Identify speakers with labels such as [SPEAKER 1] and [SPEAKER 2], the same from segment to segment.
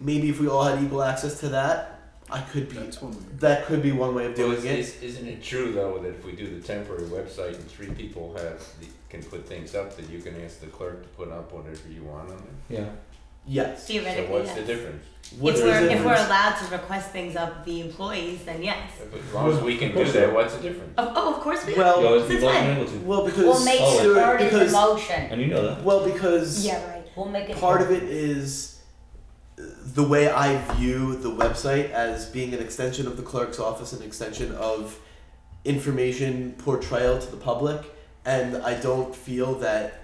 [SPEAKER 1] maybe if we all had equal access to that, I could be.
[SPEAKER 2] That's one way.
[SPEAKER 1] That could be one way of
[SPEAKER 3] Well,
[SPEAKER 1] doing
[SPEAKER 3] is,
[SPEAKER 1] it.
[SPEAKER 3] is, isn't it true though that if we do the temporary website and three people have the, can put things up, that you can ask the clerk to put up whatever you want on there?
[SPEAKER 4] Yeah.
[SPEAKER 1] Yes.
[SPEAKER 3] So
[SPEAKER 5] Theoretically,
[SPEAKER 3] what's
[SPEAKER 5] yes.
[SPEAKER 3] the difference?
[SPEAKER 1] What's
[SPEAKER 5] if
[SPEAKER 1] the
[SPEAKER 5] we're if we're
[SPEAKER 1] difference?
[SPEAKER 5] allowed to request things of the employees, then yes.
[SPEAKER 3] As long as we can do that, what's the difference?
[SPEAKER 5] Of, oh, of course we.
[SPEAKER 1] Well-
[SPEAKER 4] You'll always be
[SPEAKER 5] Since
[SPEAKER 4] blown
[SPEAKER 5] when?
[SPEAKER 4] able to.
[SPEAKER 1] Well, because
[SPEAKER 6] We'll make
[SPEAKER 4] Oh,
[SPEAKER 6] it part of the
[SPEAKER 1] because
[SPEAKER 6] motion.
[SPEAKER 4] And you know that.
[SPEAKER 1] well because
[SPEAKER 6] Yeah, right. We'll make it
[SPEAKER 1] part of it is uh, the way I view the website as being an extension of the clerk's office, an extension of information portrayal to the public, and I don't feel that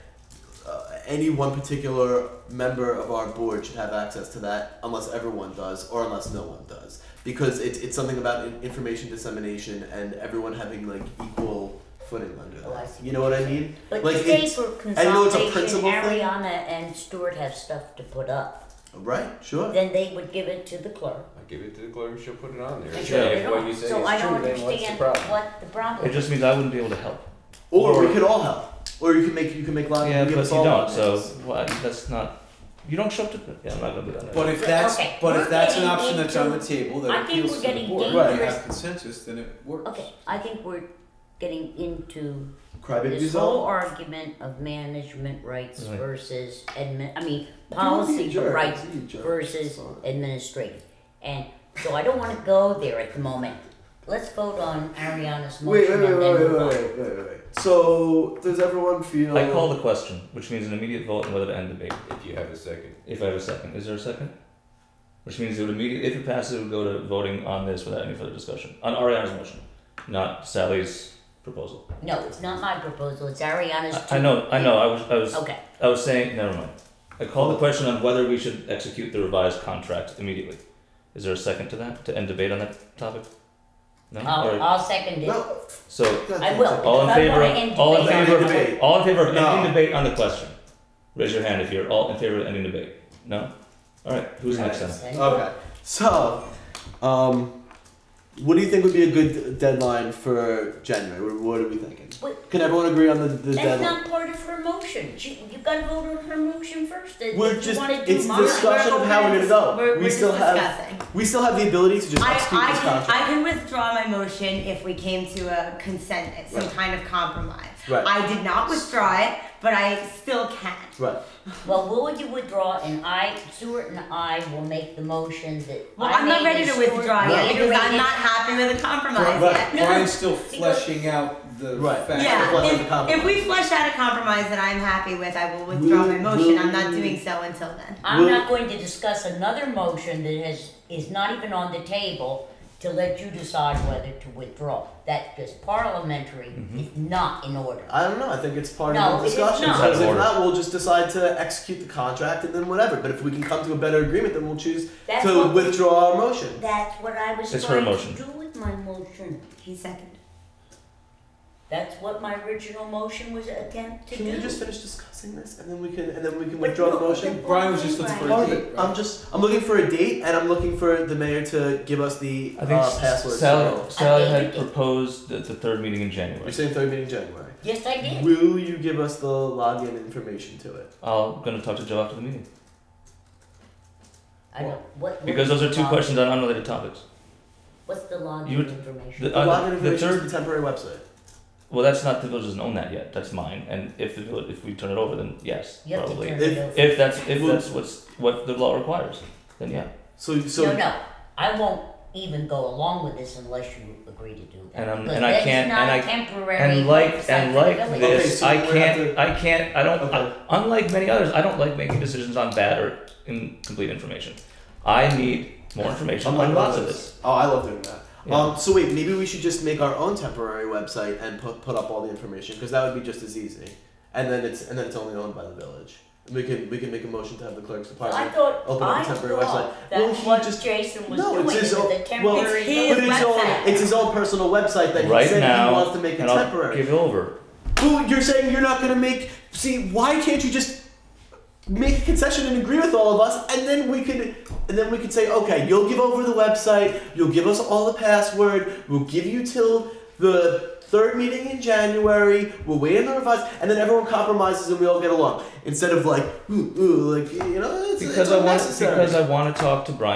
[SPEAKER 1] uh, any one particular member of our board should have access to that unless everyone does or unless no one does because it's, it's something about in- information dissemination and everyone having like equal footing under
[SPEAKER 6] Oh, I
[SPEAKER 1] that.
[SPEAKER 6] see
[SPEAKER 1] You know what I mean?
[SPEAKER 6] But
[SPEAKER 1] like,
[SPEAKER 6] today
[SPEAKER 1] it's-
[SPEAKER 6] for
[SPEAKER 1] I know it's a
[SPEAKER 6] consolidation,
[SPEAKER 1] principle thing.
[SPEAKER 6] Ariana and Stuart have stuff to put up.
[SPEAKER 1] Right, sure.
[SPEAKER 6] Then they would give it to the clerk.
[SPEAKER 3] I give it to the clerk, she'll put it on there.
[SPEAKER 6] and
[SPEAKER 3] Sure,
[SPEAKER 6] put
[SPEAKER 3] If
[SPEAKER 6] it
[SPEAKER 3] what
[SPEAKER 6] on.
[SPEAKER 3] you say
[SPEAKER 6] so
[SPEAKER 3] is
[SPEAKER 6] I don't
[SPEAKER 3] true, then what's the
[SPEAKER 6] understand
[SPEAKER 3] problem?
[SPEAKER 6] what the problem.
[SPEAKER 4] It just means I wouldn't be able to help.
[SPEAKER 1] Or,
[SPEAKER 4] Or-
[SPEAKER 1] we could all help. Or you can make you can make lottery.
[SPEAKER 4] Yeah,
[SPEAKER 1] you
[SPEAKER 4] plus you don't. So what? That's not. You don't show up to. Yeah, I'm not gonna do that.
[SPEAKER 2] But if that's
[SPEAKER 6] Okay,
[SPEAKER 2] but
[SPEAKER 6] we're
[SPEAKER 2] if that's an
[SPEAKER 6] getting
[SPEAKER 2] option that's on the table
[SPEAKER 6] I
[SPEAKER 2] that
[SPEAKER 6] think
[SPEAKER 2] appeals
[SPEAKER 6] we're
[SPEAKER 2] to the
[SPEAKER 6] getting
[SPEAKER 2] board,
[SPEAKER 1] Right.
[SPEAKER 2] and you
[SPEAKER 1] dangerous.
[SPEAKER 2] have consensus, then it works.
[SPEAKER 6] okay, I think we're getting into
[SPEAKER 1] Crybabies
[SPEAKER 6] this whole
[SPEAKER 1] all.
[SPEAKER 6] argument of management rights
[SPEAKER 4] Right.
[SPEAKER 6] versus admin. I mean,
[SPEAKER 1] Don't be a
[SPEAKER 6] policy
[SPEAKER 1] jerk,
[SPEAKER 6] rights
[SPEAKER 1] don't be a jerk.
[SPEAKER 6] versus
[SPEAKER 1] Sorry.
[SPEAKER 6] administrative, and so I don't want to go there at the moment. Let's vote on Ariana's motion
[SPEAKER 1] Wait, wait, wait,
[SPEAKER 6] and then
[SPEAKER 1] wait, wait,
[SPEAKER 6] move on.
[SPEAKER 1] wait, wait, wait, wait. So does everyone feel?
[SPEAKER 4] I call the question, which means an immediate vote on whether to end debate.
[SPEAKER 3] If you have a second.
[SPEAKER 4] If I have a second, is there a second? Which means it would immediately, if it passes, it would go to voting on this without any further discussion on Ariana's motion, not Sally's proposal.
[SPEAKER 6] No, it's not my proposal. It's Ariana's.
[SPEAKER 4] I, I know, I know. I was, I was,
[SPEAKER 6] Okay.
[SPEAKER 4] I was saying. Never mind. I call the question on whether we should execute the revised contract immediately. Is there a second to that to end debate on that topic? No. All
[SPEAKER 6] I'll,
[SPEAKER 4] right.
[SPEAKER 6] I'll second it.
[SPEAKER 1] No.
[SPEAKER 4] So
[SPEAKER 1] God,
[SPEAKER 6] I will.
[SPEAKER 4] all in
[SPEAKER 6] If I
[SPEAKER 4] favor.
[SPEAKER 6] wanna end
[SPEAKER 4] Of, all in
[SPEAKER 6] debate-
[SPEAKER 4] favor.
[SPEAKER 1] Debate.
[SPEAKER 4] Of, all in favor of
[SPEAKER 1] No.
[SPEAKER 4] ending debate on the question. Raise your hand if you're all in favor of ending debate. No. All right. Who's next? Then?
[SPEAKER 1] Okay. So, um, what do you think would be a good deadline for January? What- What are we thinking?
[SPEAKER 6] Wait,
[SPEAKER 1] Can everyone agree on the, the
[SPEAKER 6] that's
[SPEAKER 1] deadline?
[SPEAKER 6] not part of her motion. She, you gotta vote on her motion first. If
[SPEAKER 1] We're
[SPEAKER 6] you
[SPEAKER 1] just-
[SPEAKER 6] wanna do
[SPEAKER 1] it's
[SPEAKER 6] mine.
[SPEAKER 1] discussion of how we're gonna go.
[SPEAKER 5] We're,
[SPEAKER 1] We
[SPEAKER 5] we're
[SPEAKER 1] still
[SPEAKER 5] just
[SPEAKER 1] have-
[SPEAKER 5] discussing.
[SPEAKER 1] we still have the ability to just
[SPEAKER 5] I,
[SPEAKER 1] execute
[SPEAKER 5] I,
[SPEAKER 1] this
[SPEAKER 5] can,
[SPEAKER 1] contract.
[SPEAKER 5] I can withdraw my motion if we came to a consent, some
[SPEAKER 1] Right.
[SPEAKER 5] kind of compromise.
[SPEAKER 1] Right.
[SPEAKER 5] I did not withdraw it, but I still can.
[SPEAKER 1] right.
[SPEAKER 6] Well, will you withdraw? And I, Stuart and I will make the motion that.
[SPEAKER 5] Well,
[SPEAKER 6] I
[SPEAKER 5] I'm not
[SPEAKER 6] made
[SPEAKER 5] ready
[SPEAKER 6] and
[SPEAKER 5] to
[SPEAKER 6] Stuart
[SPEAKER 5] withdraw
[SPEAKER 1] Right.
[SPEAKER 5] yet because I'm
[SPEAKER 6] reiterated.
[SPEAKER 5] not happy with the compromise
[SPEAKER 1] Right.
[SPEAKER 5] yet.
[SPEAKER 2] Brian's still fleshing out the
[SPEAKER 1] Right.
[SPEAKER 2] facts.
[SPEAKER 1] Flesh out the
[SPEAKER 5] Yeah, if,
[SPEAKER 1] compromise.
[SPEAKER 5] if we flesh out a compromise that I'm happy with, I will withdraw my
[SPEAKER 1] Will-
[SPEAKER 5] motion. I'm not
[SPEAKER 1] will-
[SPEAKER 5] doing so until then.
[SPEAKER 6] I'm
[SPEAKER 1] Will-
[SPEAKER 6] not going to discuss another motion that has, is not even on the table to let you decide whether to withdraw. That's just parliamentary,
[SPEAKER 1] Mm-hmm.
[SPEAKER 6] it's not in order.
[SPEAKER 1] I don't know. I think it's part
[SPEAKER 6] No,
[SPEAKER 1] of
[SPEAKER 6] it
[SPEAKER 1] the
[SPEAKER 6] is
[SPEAKER 1] discussion.
[SPEAKER 6] not.
[SPEAKER 1] Because
[SPEAKER 4] It's out
[SPEAKER 1] if
[SPEAKER 4] of
[SPEAKER 1] not, we'll just decide to execute the contract and then whatever. But if we can come to a better agreement, then we'll choose
[SPEAKER 6] That's
[SPEAKER 1] to
[SPEAKER 6] what-
[SPEAKER 1] withdraw our motion.
[SPEAKER 6] That's what I was
[SPEAKER 4] It's her
[SPEAKER 6] trying
[SPEAKER 4] motion.
[SPEAKER 6] to do with my motion.
[SPEAKER 5] He seconded.
[SPEAKER 6] That's what my original motion was attempt to
[SPEAKER 1] Can
[SPEAKER 6] do.
[SPEAKER 1] we just finish discussing this and then we can and then we can
[SPEAKER 6] But
[SPEAKER 1] withdraw the
[SPEAKER 6] no,
[SPEAKER 1] motion?
[SPEAKER 6] the-
[SPEAKER 2] Brian was just looking for a
[SPEAKER 1] Part of
[SPEAKER 2] date.
[SPEAKER 1] it.
[SPEAKER 2] right?
[SPEAKER 1] I'm just I'm looking for a date and I'm looking for the mayor to give us the
[SPEAKER 4] I think
[SPEAKER 1] uh, password.
[SPEAKER 4] Sally,
[SPEAKER 1] So-
[SPEAKER 4] Sally
[SPEAKER 6] I
[SPEAKER 4] had
[SPEAKER 6] think it-
[SPEAKER 4] proposed the, the third meeting in
[SPEAKER 1] You're
[SPEAKER 4] January.
[SPEAKER 1] saying third meeting in January.
[SPEAKER 6] Yes, I did.
[SPEAKER 1] Will you give us the login information to it?
[SPEAKER 4] I'm going to talk to Joe after the meeting
[SPEAKER 6] I don't, what, what
[SPEAKER 4] because
[SPEAKER 6] is
[SPEAKER 4] those are
[SPEAKER 6] the
[SPEAKER 4] two
[SPEAKER 6] log-
[SPEAKER 4] questions on unrelated topics.
[SPEAKER 6] What's the
[SPEAKER 4] You
[SPEAKER 6] login
[SPEAKER 4] would-
[SPEAKER 6] information?
[SPEAKER 4] The,
[SPEAKER 1] The
[SPEAKER 4] uh,
[SPEAKER 1] login
[SPEAKER 4] the
[SPEAKER 1] information
[SPEAKER 4] third,
[SPEAKER 1] is the temporary website.
[SPEAKER 4] well, that's not the village doesn't own that yet. That's mine, and if the village, if we turn it over, then yes,
[SPEAKER 6] you have
[SPEAKER 4] probably.
[SPEAKER 6] to turn it over.
[SPEAKER 4] If that's if that's what's what the law requires, then yeah.
[SPEAKER 1] So so
[SPEAKER 6] no, no, I won't even go along with this unless you agree to do that.
[SPEAKER 4] And I'm-
[SPEAKER 6] because
[SPEAKER 4] and I
[SPEAKER 6] that is
[SPEAKER 4] can't-
[SPEAKER 6] not
[SPEAKER 4] and
[SPEAKER 6] a temporary
[SPEAKER 4] And like
[SPEAKER 6] website
[SPEAKER 4] and
[SPEAKER 6] for the
[SPEAKER 4] like
[SPEAKER 6] village.
[SPEAKER 1] Okay,
[SPEAKER 4] this,
[SPEAKER 1] so
[SPEAKER 4] I
[SPEAKER 1] we're gonna
[SPEAKER 4] can't
[SPEAKER 1] have
[SPEAKER 4] I can't I don't
[SPEAKER 1] Okay.
[SPEAKER 4] I- unlike many others, I don't like making decisions on bad or incomplete information. I need more information
[SPEAKER 1] Unlike
[SPEAKER 4] on lots of
[SPEAKER 1] others.
[SPEAKER 4] this.
[SPEAKER 1] Oh, I love doing that.
[SPEAKER 4] Yeah.
[SPEAKER 1] Um, so wait, maybe we should just make our own temporary website and put, put up all the information because that would be just as easy. And then it's and then it's only owned by the village. We can we can make a motion to have the clerk's
[SPEAKER 6] I
[SPEAKER 1] department.
[SPEAKER 6] thought
[SPEAKER 1] Open up
[SPEAKER 6] I
[SPEAKER 1] a temporary
[SPEAKER 6] thought
[SPEAKER 1] website.
[SPEAKER 6] that
[SPEAKER 1] Well, he
[SPEAKER 6] what
[SPEAKER 1] just-
[SPEAKER 6] Jason was
[SPEAKER 1] No,
[SPEAKER 6] doing
[SPEAKER 1] it's his
[SPEAKER 6] was
[SPEAKER 1] own-
[SPEAKER 6] a
[SPEAKER 1] well,
[SPEAKER 6] temporary.
[SPEAKER 5] It's
[SPEAKER 1] But it's own
[SPEAKER 5] website.
[SPEAKER 1] it's his own personal website that he
[SPEAKER 4] right
[SPEAKER 1] said
[SPEAKER 4] now,
[SPEAKER 1] he wants to make it
[SPEAKER 4] and I'll
[SPEAKER 1] temporary.
[SPEAKER 4] give over.
[SPEAKER 1] Who you're saying you're not gonna make? See, why can't you just make a concession and agree with all of us, and then we could, and then we could say, okay, you'll give over the website, you'll give us all the password, we'll give you till the Third meeting in January. We'll wait on the revised, and then everyone compromises and we all get along. Instead of like, ooh, ooh, like you know, it's,
[SPEAKER 4] because
[SPEAKER 1] it's
[SPEAKER 4] I want
[SPEAKER 1] unnecessary.
[SPEAKER 4] because I want to talk to Brian.